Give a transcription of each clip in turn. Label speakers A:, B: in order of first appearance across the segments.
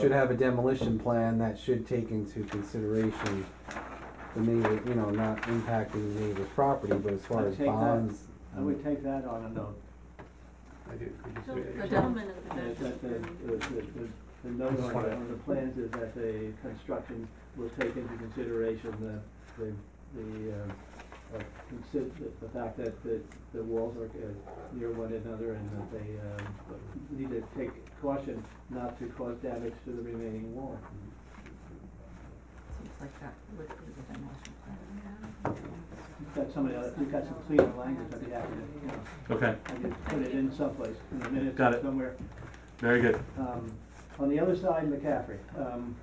A: Should have a demolition plan that should take into consideration the neighbor, you know, not impacting the neighbor's property, but as far
B: I'd
A: as
B: take that.
A: bonds.
B: I would take that on a note,
C: I do.
D: So the gentleman in the
B: that
D: back.
B: that the, the, the, the- the note
C: Just
B: on,
C: wanna-
B: the- on the plans is that the construction will take into consideration the, the, the, um, uh, consider, the fact that the, the walls are uh, near one another and that they, um, need to take caution not to cause damage to the remaining wall.
D: Seems like that would be the demolition plan.
B: You've got somebody, else- you've got some cleaner language, I'd be happy to, you know,
C: Okay,
B: I could put it in someplace, in a minute,
C: Got it.
B: somewhere.
C: very good.
B: Um, on the other side, McCaffrey, um,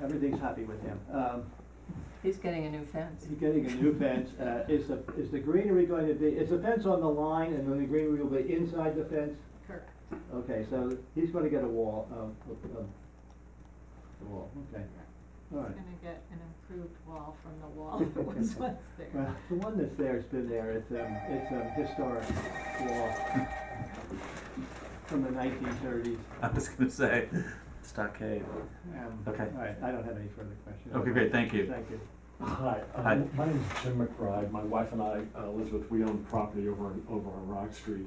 B: everything's happy with him. Um,
D: He's getting a new fence.
B: he's getting a new fence, uh, is the, is the greenery going to be, is the fence on the line and then the greenery will be inside the fence?
D: Correct.
B: Okay, so he's gonna get a wall, um, of- of- the wall, okay, all right.
E: Gonna get an improved wall from the wall that was once there.
B: Well, the one that's there's been there, it's, um, it's a historic wall from the nineteen thirties.
C: I was gonna say stockade. Okay.
B: Um, All right, I don't have any further questions.
C: Okay, great, thank you.
B: Thank you.
F: Hi,
C: Hi.
F: um, my name is Jim McBride. My wife and I, uh, Elizabeth, we own property over on, over on Rock Street.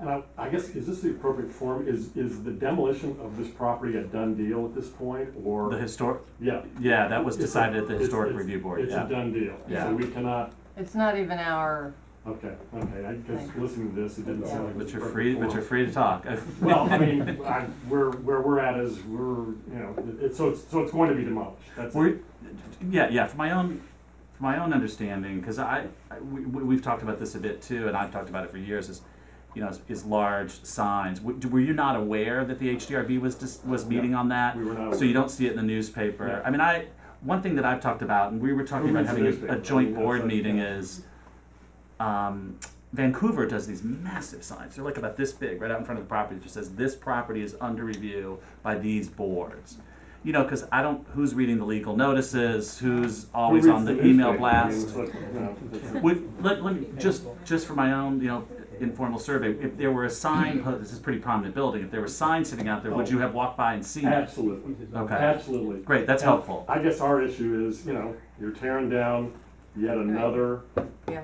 F: And I, I guess, is this the appropriate form? Is, is the demolition of this property a done deal at this point, or?
C: The historic,
F: Yeah.
C: yeah, that was
F: It's a-
C: decided at the
F: it's-
C: historic
F: it's-
C: review board,
F: It's a
C: yeah.
F: done deal.
C: Yeah.
F: So we cannot,
D: It's not even our,
F: okay, okay, I guess
D: Thank
F: listening to this, it didn't sound like.
C: But
F: the
C: you're
F: perfect
C: free, but
F: form.
C: you're free to talk.
F: Well, I mean, I, where, where we're at is, we're, you know, it's, so it's, so it's going to be demolished, that's it.
C: Were, yeah, yeah, from my own, from my own understanding, because I, I- we, we- we've talked about this a bit too, and I've talked about it for years, is, you know, is, is large signs. W- Were you not aware that the HDRB was dis was
F: No.
C: meeting on that?
F: We were not.
C: So you don't see it in the newspaper.
F: Yeah.
C: I mean, I one thing that I've talked about, and we were talking
F: Who
C: about
F: reads the
C: having a,
F: newspaper?
C: a joint
F: I mean,
C: board
F: that's like-
C: meeting is. Um, Vancouver does these massive signs. They're like about this big, right out in front of the property. It just says this property is under review by these boards. You know, because I don't who's reading the legal notices, who's always
F: Who
C: on the
F: reads
C: email
F: newspaper? I mean,
C: blast.
F: it's like, you know, it's-
C: Would, let, let me, just, just for my own, you know, informal survey, if there were a sign, po- this is a pretty prominent building, if there were a sign sitting out there,
F: Oh.
C: would you have walked by and seen it?
F: Absolutely,
C: Okay.
F: absolutely.
C: Great, that's
F: And
C: helpful.
F: I guess our issue is, you know, you're tearing down yet another
D: yeah,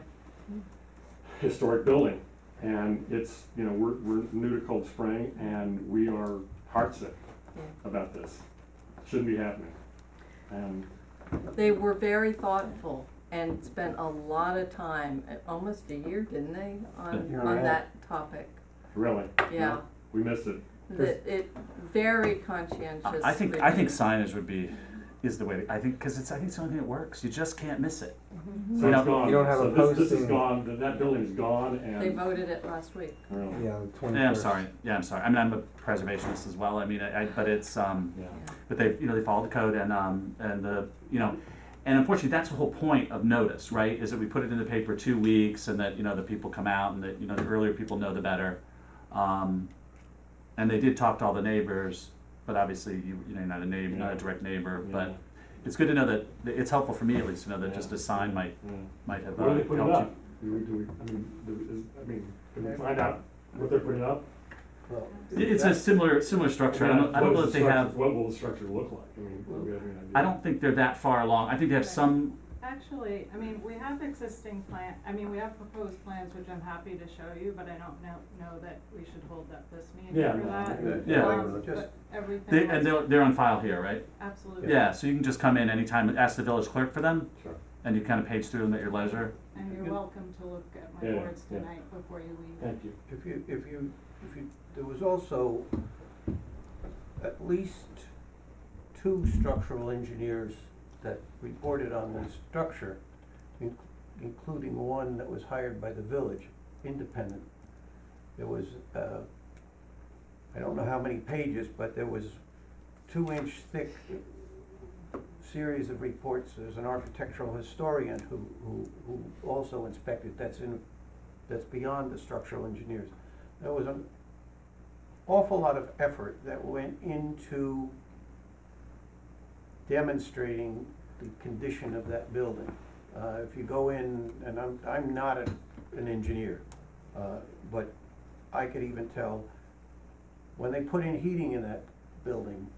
F: historic building. And it's, you know, we're, we're new to Cold Spring and we are heartsick
D: yeah.
F: about this. Shouldn't be happening. And
D: They were very thoughtful and spent a lot of time, uh, almost a year, didn't they, on,
F: Yeah.
D: on that topic?
F: really,
D: Yeah,
F: we missed it.
D: Mm-hmm. that it, very conscientious.
C: I think, I think
D: review.
C: signage would be, is the way, to- I think, because it's, I think it's the only thing that works, you just can't miss it.
F: So
C: You
F: it's
C: don't-
F: gone.
A: you don't have
F: So
A: a
F: this- This is
A: posting.
F: gone, That- that building's gone
D: They
F: and
D: voted it last week.
F: really,
A: Yeah, the twenty-first.
C: Yeah, I'm sorry, yeah, I'm sorry, I mean, I'm a preservationist as well, I mean, I, I- but it's, um,
F: yeah.
D: Yeah.
C: but they, you know, they followed the code and, um, and the, you know, and unfortunately, that's the whole point of notice, right, is that we put it in the paper two weeks and that, you know, the people come out and that, you know, the earlier people know, the better. Um, and they did talk to all the neighbors, but obviously, you, you know, you're not a neighbor, not a
F: Yeah.
C: direct neighbor,
F: Yeah.
C: but it's good to know that, it's helpful for me at least to know that
F: Yeah.
C: just a sign might
F: Yeah.
C: might have
F: Where
C: uh,
F: do they put it
C: helped
F: up? Do we, do we, I mean, do we, is, I mean, can we find out what they're putting up?
C: you. It- It's a similar similar structure. I don't, I don't
F: What
C: know
F: is
C: if
F: the
C: they
F: structure-
C: have. Mm-hmm.
F: What will the structure look like? I mean, do we have any idea?
C: I don't think they're that far along. I think they have some.
E: Actually, I mean, we have existing plan, I mean, we have proposed plans, which I'm happy to show you, but I don't know, know that we should hold up this meeting
F: Yeah,
E: for
F: no, I
E: that.
F: think
C: Yeah.
E: Um,
B: Just-
E: but Everything
C: They, and
E: else,
C: they're, they're on file here, right?
E: absolutely.
C: Yeah. So you can just come in anytime and ask the village clerk for them,
F: Sure.
C: and you kind of page through them at your leisure.
E: And you're welcome to look at my
F: Yeah,
E: boards
F: yeah.
E: tonight before you leave.
F: Thank you.
G: If you, if you, if you, there was also at least two structural engineers that reported on the structure, in- including one that was hired by the village, independent. There was, uh, I don't know how many pages, but there was two-inch thick series of reports. There's an architectural historian who, who, who also inspected, that's in, that's beyond the structural engineers. There was an awful lot of effort that went into demonstrating the condition of that building. Uh, if you go in, and I'm, I'm not an, an engineer, uh, but I could even tell, when they put in heating in that
B: building